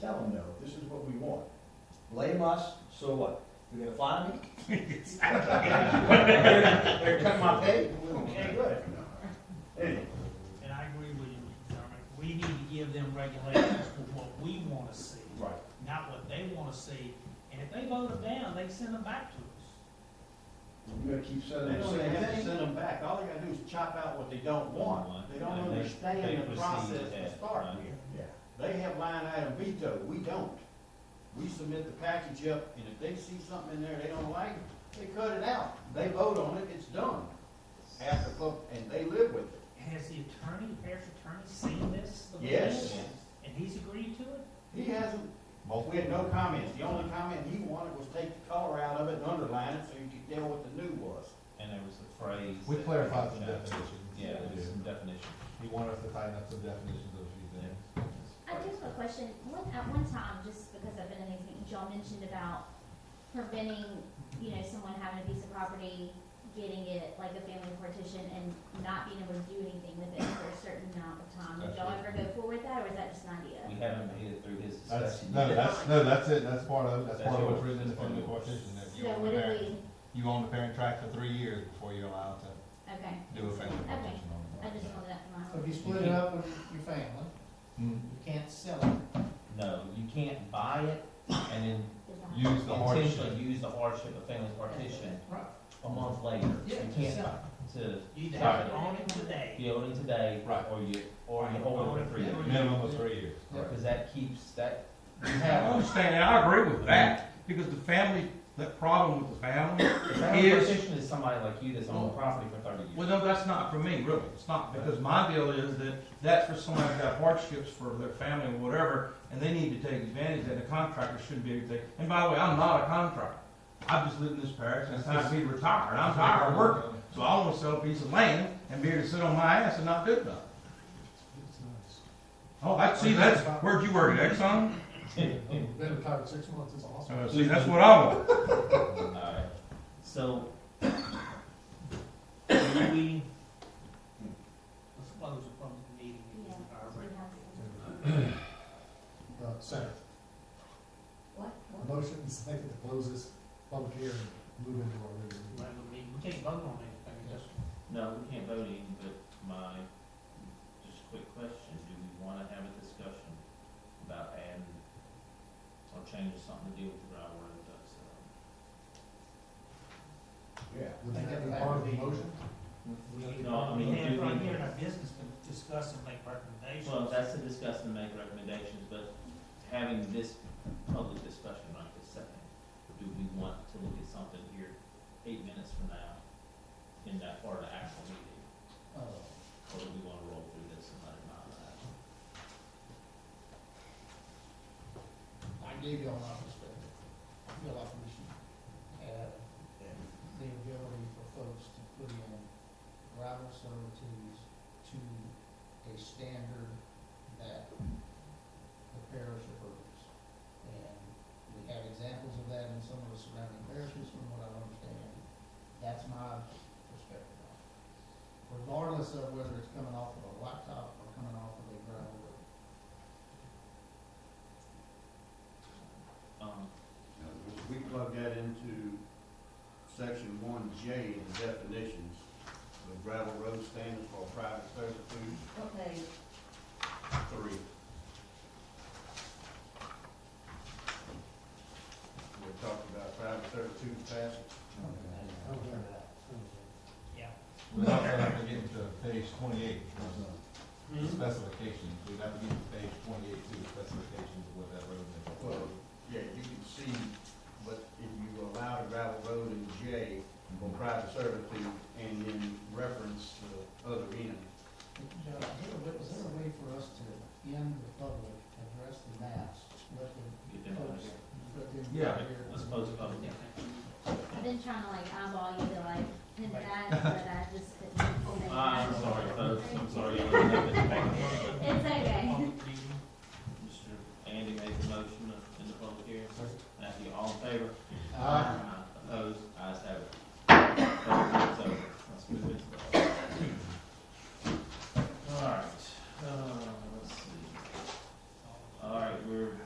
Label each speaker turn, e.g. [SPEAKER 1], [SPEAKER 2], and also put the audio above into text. [SPEAKER 1] Tell them no, this is what we want. Blame us, so what? You're gonna fire me? They're cutting my pay? Okay, good. Anyway,
[SPEAKER 2] And I agree with you, Dermot, we need to give them regulations for what we wanna see,
[SPEAKER 1] Right.
[SPEAKER 2] not what they wanna see, and if they vote them down, they send them back to us.
[SPEAKER 1] You gotta keep
[SPEAKER 3] They
[SPEAKER 1] saying the
[SPEAKER 3] don't
[SPEAKER 1] same
[SPEAKER 3] even have to
[SPEAKER 1] thing.
[SPEAKER 3] send them back, all they gotta do is chop out what they don't want, they don't
[SPEAKER 4] And they- they
[SPEAKER 3] understand the
[SPEAKER 4] proceed
[SPEAKER 3] process
[SPEAKER 4] with
[SPEAKER 3] to
[SPEAKER 4] that,
[SPEAKER 3] start
[SPEAKER 4] right.
[SPEAKER 3] with.
[SPEAKER 1] Yeah.
[SPEAKER 3] They have line item veto, we don't. We submit the package up, and if they see something in there they don't like, they cut it out, they vote on it, it's done. After, vote, and they live with it.
[SPEAKER 2] And has the attorney, parish attorney seen this? the
[SPEAKER 3] Yes.
[SPEAKER 2] plan? And he's agreed to it?
[SPEAKER 3] He hasn't, we had no comments, the only comment he wanted was take the color out of it and underline it so you could tell what the new was.
[SPEAKER 4] And there was a phrase.
[SPEAKER 5] We
[SPEAKER 4] that-
[SPEAKER 5] clarified some definitions.
[SPEAKER 4] Yeah, there's some definition.
[SPEAKER 5] You want us to tighten up some definitions of a few things.
[SPEAKER 6] I do have a question. One, at one time, just because I've been in these meetings, y'all mentioned about preventing, you know, someone having a piece of property, getting it like a family partition and not being able to do anything with it for a certain amount of time. Did y'all ever go forward with that or is that just an idea?
[SPEAKER 4] We haven't made it through his
[SPEAKER 5] That's,
[SPEAKER 4] discussion.
[SPEAKER 5] no,
[SPEAKER 4] yet.
[SPEAKER 5] that's, no, that's it, that's part of, that's
[SPEAKER 4] That's
[SPEAKER 5] part of what's
[SPEAKER 4] yours.
[SPEAKER 5] written in the
[SPEAKER 4] That's part of
[SPEAKER 5] family
[SPEAKER 4] yours.
[SPEAKER 5] partition, if you
[SPEAKER 6] So
[SPEAKER 5] own the
[SPEAKER 6] what do
[SPEAKER 5] parent,
[SPEAKER 6] we,
[SPEAKER 5] you own the parent tract for three years before you're allowed to
[SPEAKER 6] okay,
[SPEAKER 5] do a family
[SPEAKER 6] Okay.
[SPEAKER 5] partition
[SPEAKER 6] I
[SPEAKER 5] on
[SPEAKER 6] just wanted that for my.
[SPEAKER 7] So if you split it up with your family,
[SPEAKER 5] Mm.
[SPEAKER 7] you can't sell it.
[SPEAKER 4] No, you can't buy it and then
[SPEAKER 6] Design.
[SPEAKER 5] Use the hardship,
[SPEAKER 4] intentionally use the hardship of family partition
[SPEAKER 7] Right.
[SPEAKER 4] a month later. You
[SPEAKER 7] Yeah,
[SPEAKER 4] can't
[SPEAKER 7] sell
[SPEAKER 4] buy it to
[SPEAKER 2] You either
[SPEAKER 4] Right.
[SPEAKER 2] have it on him today,
[SPEAKER 4] be owning today,
[SPEAKER 5] Right.
[SPEAKER 4] or you, or you hold it for three years.
[SPEAKER 5] minimum of three years.
[SPEAKER 7] Right.
[SPEAKER 4] Because that keeps, that, you
[SPEAKER 8] I
[SPEAKER 4] have,
[SPEAKER 8] understand, and I agree with that, because the family, the problem with the family,
[SPEAKER 4] a family
[SPEAKER 8] Is-
[SPEAKER 4] partition is somebody like you that's owned the property for thirty years.
[SPEAKER 8] well, no, that's not for me, really, it's not, because my deal is that that's for someone who's got hardships for their family or whatever, and they need to take advantage of that, the contractor shouldn't be able to take, and by the way, I'm not a contractor. I've just lived in this parish, and it's time to be retired, I'm tired of working, so I wanna sell a piece of land and be able to sit on my ass and not do nothing. Oh, I, see, that's, where'd you work, at Exxon?
[SPEAKER 7] Been retired six months, it's awesome.
[SPEAKER 8] Uh, See, that's what I want.
[SPEAKER 4] Alright, so,
[SPEAKER 2] do we, let's close the public meeting. and
[SPEAKER 6] Yeah.
[SPEAKER 2] our
[SPEAKER 6] We
[SPEAKER 2] regular-
[SPEAKER 6] have some-
[SPEAKER 7] Uh, second,
[SPEAKER 6] What? What?
[SPEAKER 7] motion second to close this public hearing, move into our regular meeting.
[SPEAKER 2] regular meeting. We can't vote on anything, just
[SPEAKER 4] No, we can't vote any, but my, just quick question, do we wanna have a discussion about adding or changing something to deal with the groundwater and duck settlement?
[SPEAKER 1] Yeah.
[SPEAKER 7] Would that be part of the motion?
[SPEAKER 2] We,
[SPEAKER 4] No, I mean,
[SPEAKER 2] we have
[SPEAKER 4] do
[SPEAKER 2] right
[SPEAKER 4] we-
[SPEAKER 2] here in our business to discuss and make recommendations.
[SPEAKER 4] Well, that's to discuss and make recommendations, but having this public discussion right this second, do we want to look at something here eight minutes from now in that part of the actual meeting? Oh. Or do we wanna roll through this and let it not happen?
[SPEAKER 7] I gave y'all my perspective, feel like we should add the ability for folks to put in rival servitudes to a standard that the parish approves. And we have examples of that in some of the surrounding parishes, from what I understand. That's my perspective on it. Regardless of whether it's coming off of a laptop or coming off of a gravel road.
[SPEAKER 4] Um,
[SPEAKER 3] Now, We plug that into section one J in definitions, the gravel road standards for private servitude,
[SPEAKER 6] Okay.
[SPEAKER 3] three. We talked about private servitude passage.
[SPEAKER 2] Yeah.
[SPEAKER 5] We'd also have to get into page twenty-eight, which is specifications, we'd have to get to page twenty-eight to the specifications of what that road is.
[SPEAKER 3] Well, yeah, you can see, but if you allow the gravel road in J for private servitude and then reference the other end.
[SPEAKER 7] Joe, is there a way- is there a way for us to end the public, address the maps, let the
[SPEAKER 4] get them out of
[SPEAKER 7] folks,
[SPEAKER 4] here.
[SPEAKER 7] let them.
[SPEAKER 8] Yeah.
[SPEAKER 7] hear-
[SPEAKER 4] Let's close the public hearing.
[SPEAKER 6] I've been trying to like eyeball you to like pin that, but I just couldn't. say
[SPEAKER 4] Uh,
[SPEAKER 6] that.
[SPEAKER 4] I'm sorry, folks, I'm sorry. I don't have this back here, but
[SPEAKER 6] It's okay.
[SPEAKER 2] Public meeting.
[SPEAKER 4] Mr. Andy made the motion in the public hearing. Thank you, all in favor?
[SPEAKER 7] Uh,
[SPEAKER 4] Opposed? Ayes have it. Uh,